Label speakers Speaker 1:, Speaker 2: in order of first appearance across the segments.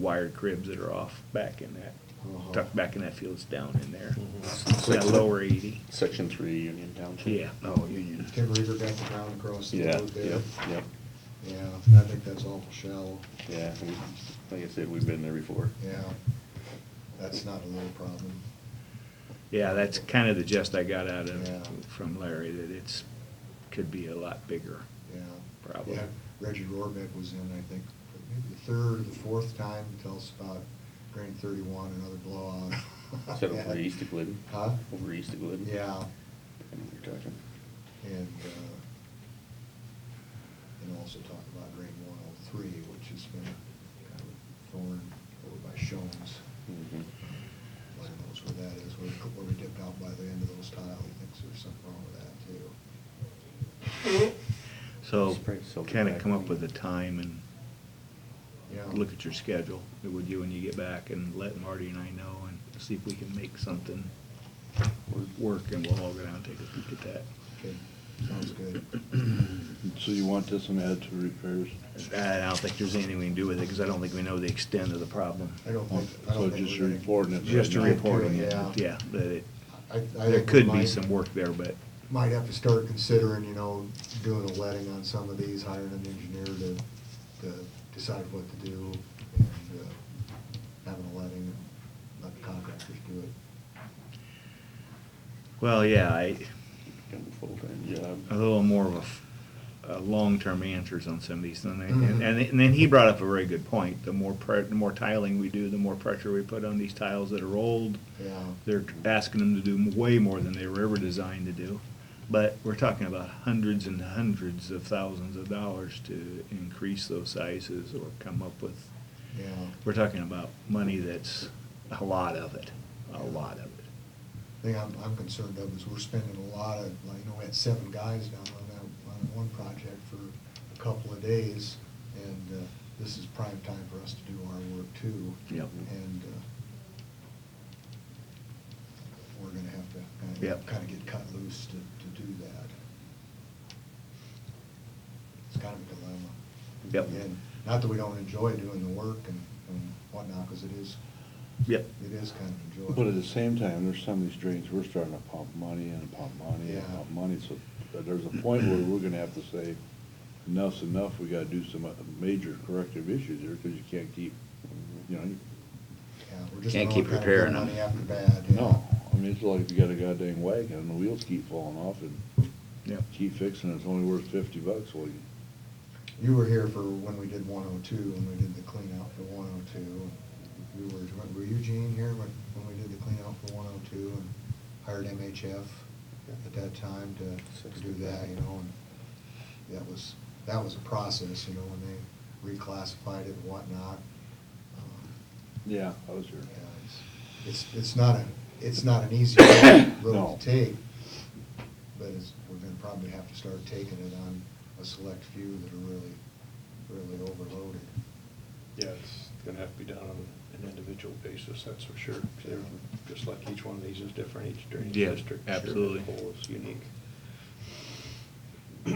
Speaker 1: wired cribs that are off back in that,
Speaker 2: Uh-huh.
Speaker 1: tucked back in that field, it's down in there.
Speaker 2: Mhm.
Speaker 1: That lower eighty,
Speaker 3: Section three, Union Township.
Speaker 1: yeah.
Speaker 2: Oh, Union. Tim Reaver got the ground across the
Speaker 3: Yeah,
Speaker 2: road there.
Speaker 3: yep, yep,
Speaker 2: Yeah, I think that's awful shallow,
Speaker 3: yeah, we, like I said, we've been there before.
Speaker 2: yeah. That's not a little problem.
Speaker 1: Yeah, that's kind of the gist I got out
Speaker 2: Yeah.
Speaker 1: of, from Larry, that it's, could be a lot bigger.
Speaker 2: Yeah.
Speaker 1: Problem.
Speaker 2: Yeah, Reggie Rorbeck was in, I think, maybe the third or the fourth time to tell us about Grand Thirty-One, another blowout.
Speaker 3: Is that over east of Glidden?
Speaker 2: Huh?
Speaker 3: Over east of Glidden?
Speaker 2: Yeah,
Speaker 3: I know what you're talking.
Speaker 2: and, uh, and also talk about Grade One oh three, which has been kind of a thorn over by Shones.
Speaker 3: Mhm.
Speaker 2: Lord knows where that is, where, where we dipped out by the end of those tile, he thinks there's something wrong with that too.
Speaker 1: So,
Speaker 3: Spray silver
Speaker 1: kind of
Speaker 3: back
Speaker 1: come up
Speaker 3: on.
Speaker 1: with a time and
Speaker 2: Yeah.
Speaker 1: look at your schedule, would you, when you get back, and let Marty and I know, and see if we can make something work, and we'll all go down and take a peek at that.
Speaker 2: Okay, sounds good.
Speaker 4: So you want this one add to repairs?
Speaker 1: I don't think there's anything we can do with it, because I don't think we know the extent of the problem.
Speaker 2: I don't think, I
Speaker 4: So
Speaker 2: don't think.
Speaker 4: just
Speaker 2: we're gonna-
Speaker 4: reporting it?
Speaker 1: Just a
Speaker 4: right now.
Speaker 1: reporting it,
Speaker 2: Yeah.
Speaker 1: yeah, but it,
Speaker 2: I, I think.
Speaker 1: there
Speaker 2: we
Speaker 1: could be
Speaker 2: might-
Speaker 1: some work there, but,
Speaker 2: Might have to start considering, you know, doing a letting on some of these, hiring an engineer to, to decide what to do, and, uh, having a letting, and let the contractors do it.
Speaker 1: well, yeah, I,
Speaker 3: Got a full-time job.
Speaker 1: a little more of a f- a, long-term answers on some of these things. And,
Speaker 2: Mhm.
Speaker 1: and and then he brought up a very good point. The more pre, the more tiling we do, the more pressure we put on these tiles that are old.
Speaker 2: Yeah.
Speaker 1: They're asking them to do way more than they were ever designed to do. But we're talking about hundreds and hundreds of thousands of dollars to increase those sizes or come up with.
Speaker 2: Yeah.
Speaker 1: We're talking about money that's a lot of it, a lot of it.
Speaker 2: thing I'm, I'm concerned of is we're spending a lot of, like, you know, we had seven guys down on that, on one project for a couple of days, and, uh, this is prime time for us to do our work too.
Speaker 1: Yep.
Speaker 2: And, uh, we're gonna have to kinda,
Speaker 1: Yep.
Speaker 2: kinda get cut loose to, to do that. It's kind of a dilemma.
Speaker 1: Yep.
Speaker 2: Again, Not that we don't enjoy doing the work and, and whatnot, cause it is,
Speaker 1: Yep.
Speaker 2: it is kind of enjoyable.
Speaker 4: But at the same time, there's some of these drains, we're starting to pump money and pump money and
Speaker 2: Yeah.
Speaker 4: pump money, so there's a point where we're gonna have to say, enough's enough, we gotta do some uh, major corrective issues here, because you can't keep, you know, you-
Speaker 2: Yeah, we're just
Speaker 5: Can't
Speaker 2: throwing
Speaker 5: keep
Speaker 2: kind of
Speaker 5: repairing
Speaker 2: good
Speaker 5: them.
Speaker 2: Money after bad, yeah.
Speaker 4: no. I mean, it's like you got a goddamn wagon, and the wheels keep falling off, and
Speaker 1: Yep.
Speaker 4: keep fixing it, it's only worth fifty bucks, well, you
Speaker 2: You were here for when we did one oh two, when we did the clean out for one oh two. You were, were you Gene here when, when we did the clean out for one oh two and hired MHF at that time to to do that, you know, and that was, that was a process, you know, when they reclassified it and whatnot. Um,
Speaker 4: Yeah, I was here.
Speaker 2: yeah, it's- It's, it's not a, it's not an easy road
Speaker 4: No.
Speaker 2: to take, but it's, we're gonna probably have to start taking it on a select few that are really, really overloaded.
Speaker 6: Yeah, it's gonna have to be done on an individual basis, that's for sure. 'Cause they're- Just like each one of these is different, each drainage
Speaker 1: Yeah,
Speaker 6: district. sure, as a
Speaker 1: absolutely.
Speaker 6: whole is unique.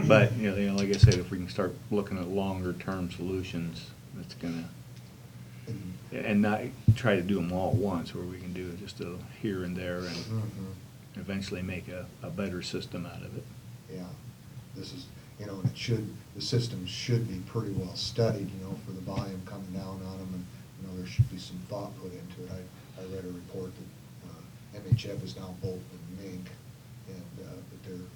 Speaker 1: But, you know, you know, like I said, if we can start looking at longer-term solutions, that's gonna,
Speaker 2: And-
Speaker 1: and not try to do them all at once, where we can do just a here and there and
Speaker 2: Mhm,
Speaker 1: eventually make a, a better system out of it.
Speaker 2: Yeah, this is, you know, and it should, the system should be pretty well studied, you know, for the volume coming down on them, and, you know, there should be some thought put into it. I, I read a report that, uh, MHF is now Bolt and Mink, and, uh, that they're,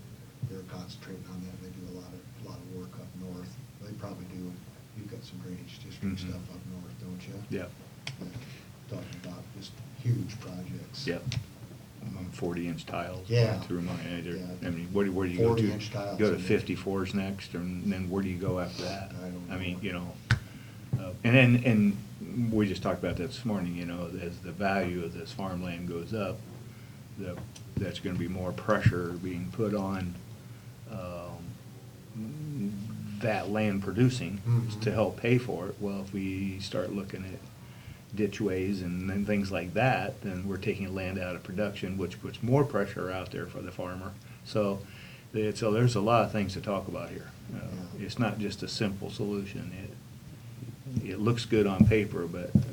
Speaker 2: they're concentrating on that, they do a lot of, a lot of work up north. They probably do, you've got some drainage district
Speaker 1: Mhm.
Speaker 2: stuff up north, don't you?
Speaker 1: Yep,
Speaker 2: Yeah. Talking about just huge projects.
Speaker 1: yep. Um, Forty-inch tiles.
Speaker 2: Yeah.
Speaker 1: Through my, I don't-
Speaker 2: Yeah.
Speaker 1: I mean, where, do- where do you go to?
Speaker 2: 40-inch tiles.
Speaker 1: Go to fifty-fours next, and then where do you go after that?
Speaker 2: I don't
Speaker 1: I mean,
Speaker 2: know.
Speaker 1: you know, uh, and then, and we just talked about that this morning, you know, as the value of this farmland goes up, the, that's gonna be more pressure being put on, um, that land producing
Speaker 2: Mhm.
Speaker 1: to help pay for it. Well, if we start looking at ditchways and then things like that, then we're taking land out of production, which puts more pressure out there for the farmer. So, it- so there's a lot of things to talk about here. Uh,
Speaker 2: Yeah.
Speaker 1: It's not just a simple solution. It, it looks good on paper, but uh,